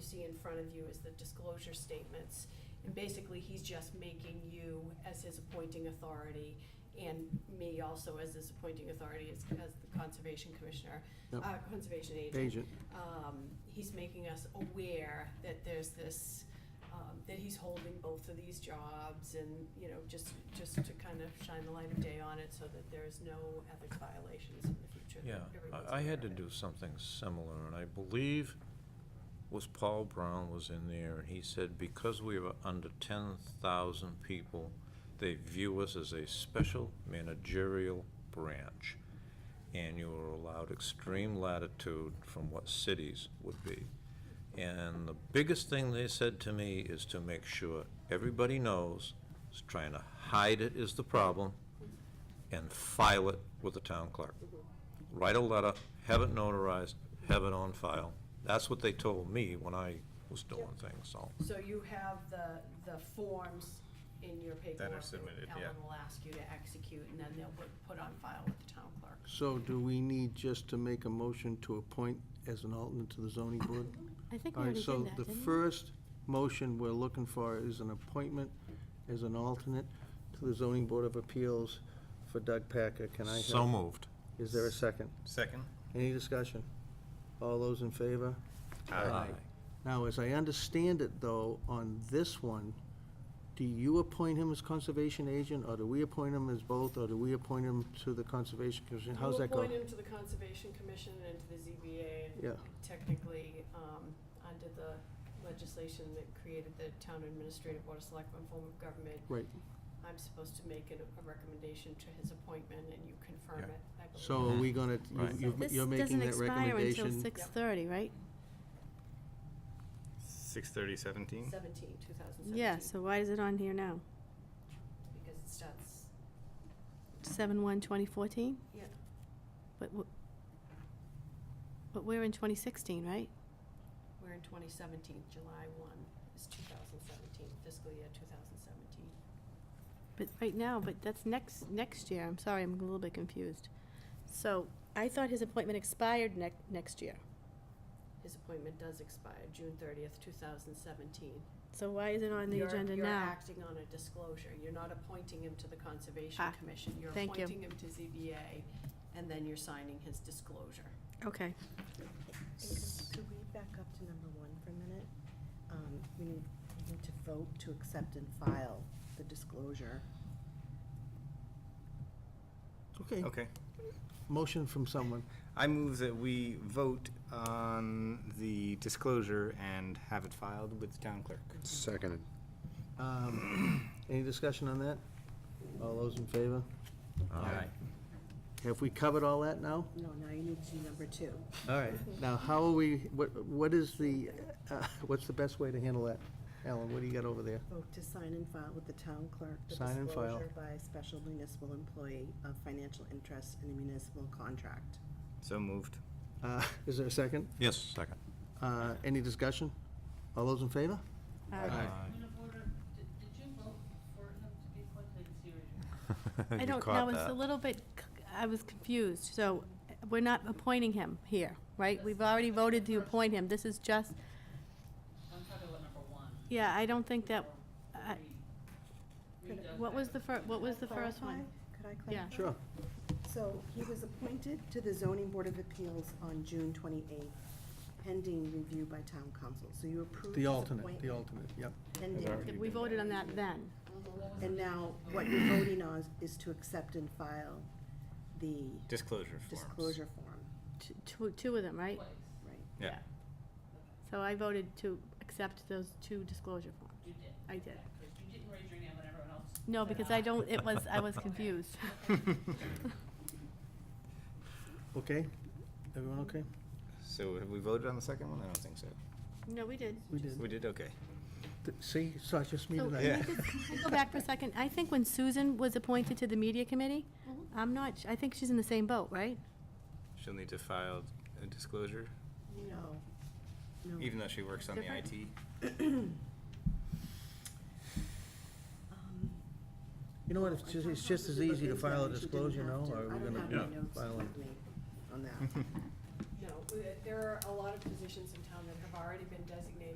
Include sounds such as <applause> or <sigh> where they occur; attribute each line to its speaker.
Speaker 1: see in front of you is the disclosure statements. And basically, he's just making you as his appointing authority and me also as his appointing authority as, as the conservation commissioner,
Speaker 2: Yep.
Speaker 1: uh, conservation agent
Speaker 2: agent.
Speaker 1: um, he's making us aware that there's this, um, that he's holding both of these jobs and, you know, just, just to kind of shine the light of day on it so that there's no ethics violations in the future. that
Speaker 3: Yeah,
Speaker 1: everyone's
Speaker 3: I, I had to
Speaker 1: aware of it.
Speaker 3: do something similar, and I believe was Paul Brown was in there, and he said, because we were under ten thousand people, they view us as a special managerial branch, and you are allowed extreme latitude from what cities would be. And the biggest thing they said to me is to make sure everybody knows, is trying to hide it is the problem, and file it with the town clerk. Write a letter, have it notarized, have it on file. That's what they told me when I was doing things, so.
Speaker 1: So you have the, the forms in your paperwork.
Speaker 4: submitted, yeah.
Speaker 1: Ellen will ask you to execute and then they'll put, put on file with the town clerk.
Speaker 2: So do we need just to make a motion to appoint as an alternate to the zoning board?
Speaker 5: I think we
Speaker 2: All right,
Speaker 5: already
Speaker 2: so
Speaker 5: did that,
Speaker 2: the
Speaker 5: didn't we?
Speaker 2: first motion we're looking for is an appointment as an alternate to the zoning board of appeals for Doug Packer. Can I have?
Speaker 3: So moved.
Speaker 2: Is there a second?
Speaker 4: Second?
Speaker 2: Any discussion? All those in favor? Now, as I understand it, though, on this one, do you appoint him as conservation agent, or do we appoint him as both, or do we appoint him to the conservation commission? How's that
Speaker 1: You
Speaker 2: going?
Speaker 1: appoint him to the Conservation Commission and to the ZBA and
Speaker 2: Yeah,
Speaker 1: technically, um, under the legislation that created the Town Administrative Board of Selectmen form of government,
Speaker 2: right.
Speaker 1: I'm supposed to make a, a recommendation to his appointment and you confirm
Speaker 3: Yeah.
Speaker 1: it, I believe.
Speaker 2: So are we
Speaker 4: Mhm.
Speaker 2: gonna, you-
Speaker 3: Right.
Speaker 2: you've-
Speaker 5: This
Speaker 2: you're making
Speaker 5: doesn't
Speaker 2: that
Speaker 5: expire until
Speaker 2: recommendation?
Speaker 5: six thirty, right?
Speaker 4: Six thirty seventeen?
Speaker 1: Seventeen, two thousand seventeen.
Speaker 5: Yeah, so why is it on here now?
Speaker 1: Because it starts,
Speaker 5: Seven one twenty fourteen?
Speaker 1: yeah,
Speaker 5: But, w- but we're in twenty sixteen, right?
Speaker 1: we're in twenty seventeen, July one is two thousand seventeen, fiscal year two thousand seventeen.
Speaker 5: But right now, but that's next, next year. I'm sorry, I'm a little bit confused. So I thought his appointment expired next, next year.
Speaker 1: His appointment does expire June thirtieth, two thousand seventeen.
Speaker 5: So why is it on the
Speaker 1: You're-
Speaker 5: agenda
Speaker 1: You're
Speaker 5: now?
Speaker 1: acting on a disclosure. You're not appointing him to the Conservation
Speaker 5: Ah,
Speaker 1: Commission. You're
Speaker 5: thank you.
Speaker 1: appointing him to ZBA, and then you're signing his disclosure.
Speaker 5: Okay,
Speaker 6: And could- Could we back up to number one for a minute? Um, We need, we need to vote to accept and file the disclosure.
Speaker 2: Okay,
Speaker 4: Okay.
Speaker 2: motion from someone.
Speaker 4: I move that we vote on the disclosure and have it filed with the town clerk.
Speaker 7: Seconded.
Speaker 4: <clears throat>
Speaker 2: Um, Any discussion on that? All those in favor?
Speaker 3: Aye.
Speaker 2: Have we covered all that now?
Speaker 6: No, now you need to do number two.
Speaker 2: All right, now how are we, what, what is the, uh, <laughs> what's the best way to handle that? Alan, what do you got over there?
Speaker 6: Vote to sign and file with the town clerk the
Speaker 2: Sign and file.
Speaker 6: disclosure by a special municipal employee of financial interest in a municipal contract.
Speaker 4: So moved.
Speaker 2: Uh, <laughs> Is there a second?
Speaker 3: Yes, second. <laughs>
Speaker 2: Uh, Any discussion? All those in favor?
Speaker 4: Uh,
Speaker 8: Point of order, did, did you vote for him to be appointed seriously?
Speaker 3: <laughs>
Speaker 5: I
Speaker 3: You
Speaker 5: don't,
Speaker 3: caught
Speaker 5: know. it's a
Speaker 3: that.
Speaker 5: little bit, c- I was confused, so uh, we're not appointing him here, right? We've already voted to appoint him, this is just,
Speaker 8: I'm talking about number one.
Speaker 5: yeah, I don't think that, I-
Speaker 8: Read that
Speaker 5: what
Speaker 8: back.
Speaker 5: was the fir, what was the first one?
Speaker 6: Clarify? Could I
Speaker 5: Yeah.
Speaker 6: clarify?
Speaker 2: Sure.
Speaker 6: So he was appointed to the zoning board of appeals on June twenty-eighth, pending review by town council. So you approved his
Speaker 2: The alternate, the
Speaker 6: appointment
Speaker 2: alternate, yep.
Speaker 6: Pending.
Speaker 5: We voted on that then,
Speaker 6: And now, what you're voting on is- is to accept and file the
Speaker 4: Disclosure forms.
Speaker 6: disclosure form,
Speaker 5: T- two, two of them, right?
Speaker 8: Twice.
Speaker 6: right?
Speaker 4: Yeah.
Speaker 5: So I voted to accept those two disclosure forms.
Speaker 8: You did.
Speaker 5: I did.
Speaker 8: Yeah, 'cause You didn't raise your name when everyone else.
Speaker 5: No,
Speaker 8: said
Speaker 5: because
Speaker 8: aye.
Speaker 5: I don't, it was, I
Speaker 3: <laughs>
Speaker 5: was
Speaker 8: <laughs>
Speaker 5: confused. <laughs>
Speaker 2: Okay? Everyone okay?
Speaker 4: So have we voted on the second one? I don't think so.
Speaker 5: No, we did.
Speaker 2: We did.
Speaker 4: We did, okay.
Speaker 2: Th- See, so it's just me
Speaker 5: So,
Speaker 2: tonight.
Speaker 4: Yeah.
Speaker 5: can I just- can I go back for a second? I think when Susan was appointed to the media committee, I'm not, s- I think she's in the same boat, right?
Speaker 4: She'll need to file a disclosure,
Speaker 6: No, no.
Speaker 4: even though she works on the
Speaker 5: Different?
Speaker 4: IT.
Speaker 6: Um,
Speaker 2: You know what, it's
Speaker 6: I
Speaker 2: just,
Speaker 6: found
Speaker 2: it's just
Speaker 6: out
Speaker 2: as
Speaker 6: that she
Speaker 2: easy to
Speaker 6: didn't
Speaker 2: file a
Speaker 6: have- she didn't
Speaker 2: disclosure,
Speaker 6: have
Speaker 2: no?
Speaker 6: to.
Speaker 2: Are we
Speaker 6: I don't
Speaker 2: gonna
Speaker 6: have any
Speaker 4: Yeah.
Speaker 6: notes
Speaker 2: file
Speaker 6: with me on that.
Speaker 1: No, uh, there are a lot of positions in town that have already been designated